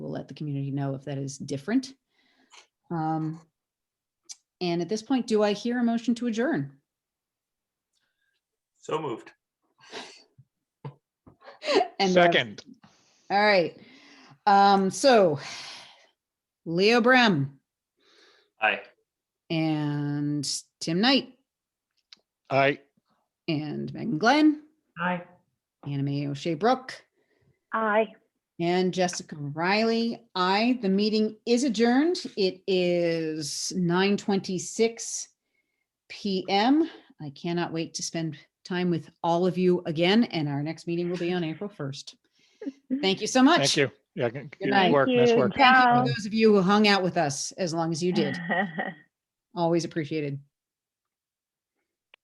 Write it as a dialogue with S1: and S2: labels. S1: let the community know if that is different. Um, And at this point, do I hear a motion to adjourn?
S2: So moved.
S1: And, uh,
S3: Second,
S1: All right. Um, So Leo Brem
S2: Aye.
S1: and Tim Knight
S3: I,
S1: and Megan Glenn,
S2: Aye.
S1: Anime O'Shea Brooke,
S4: Aye.
S1: and Jessica Riley. Aye, the meeting is adjourned. It is 9:26 PM. I cannot wait to spend time with all of you again, and our next meeting will be on April 1st. Thank you so much.
S3: thank you. Yeah, good good
S1: night.
S3: work, nice
S4: Thank
S3: work.
S4: you.
S1: Thank you
S4: Ciao.
S1: for those of you who hung out with us as long as you did. Always appreciated.